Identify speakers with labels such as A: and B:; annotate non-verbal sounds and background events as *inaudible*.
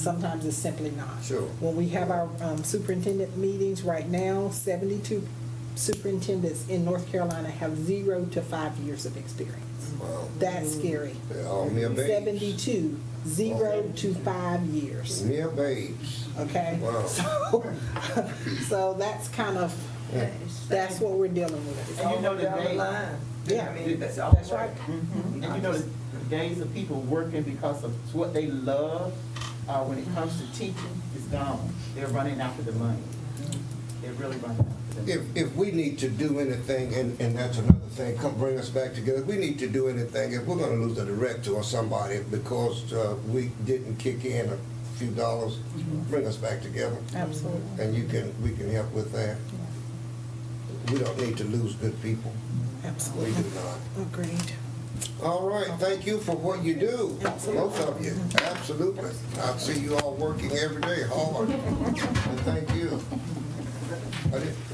A: Sometimes it's simply not.
B: Sure.
A: When we have our um, superintendent meetings right now, 72 superintendents in North Carolina have zero to five years of experience.
B: Wow.
A: That's scary.
B: They're all mere babes.
A: 72, zero to five years,
B: Mere babes.
A: okay?
B: Wow.
A: *laughs* So, so that's kind of, that's what we're dealing with.
C: And you know down the line.
A: Yeah.
C: I mean, that's all.
A: That's right.
C: Mm-hmm. And you know, the days of people working because of what they love, uh, when it comes to teaching, is gone. They're running after the money. They're really running after the
B: If,
C: money.
B: if we need to do anything, and, and that's another thing, come bring us back together. If we need to do anything, if we're gonna lose a director or somebody because, uh, we didn't kick in a few dollars, bring us back together.
A: Absolutely.
B: And you can, we can help with that. We don't need to lose good people. We do
A: Absolutely.
B: not.
A: Agreed.
B: All right, thank you for what you do, both of you, absolutely. I see you all working every day hard.